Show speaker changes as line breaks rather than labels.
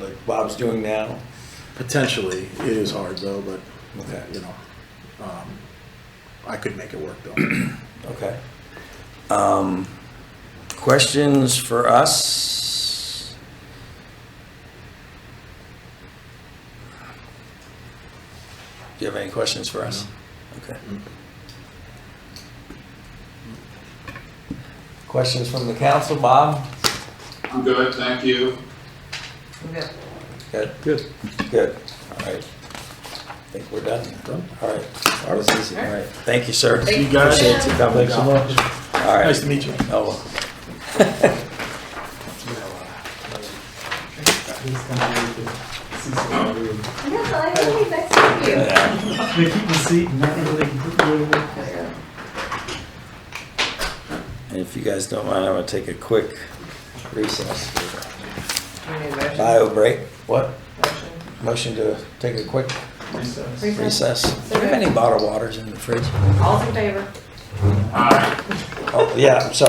like Bob's doing now?
Potentially, it is hard though, but,
Okay.
you know, um, I could make it work though.
Okay. Um, questions for us? Do you have any questions for us? Okay. Questions from the council, Bob?
I'm good, thank you.
Good,
Good.
good, all right. I think we're done. All right. That was easy. All right, thank you, sir.
You guys.
Appreciate you coming
Thanks so
down.
much.
All right.
Nice to meet you.
Oh.
I know, I think he's next to you.
Yeah.
They keep the seat and not really
And if you guys don't mind, I'm gonna take a quick recess.
Motion.
Bio break. What? Motion to take a quick recess. Do you have any bottled waters in the fridge?
All's in favor?
All right.
Oh, yeah, I'm sorry.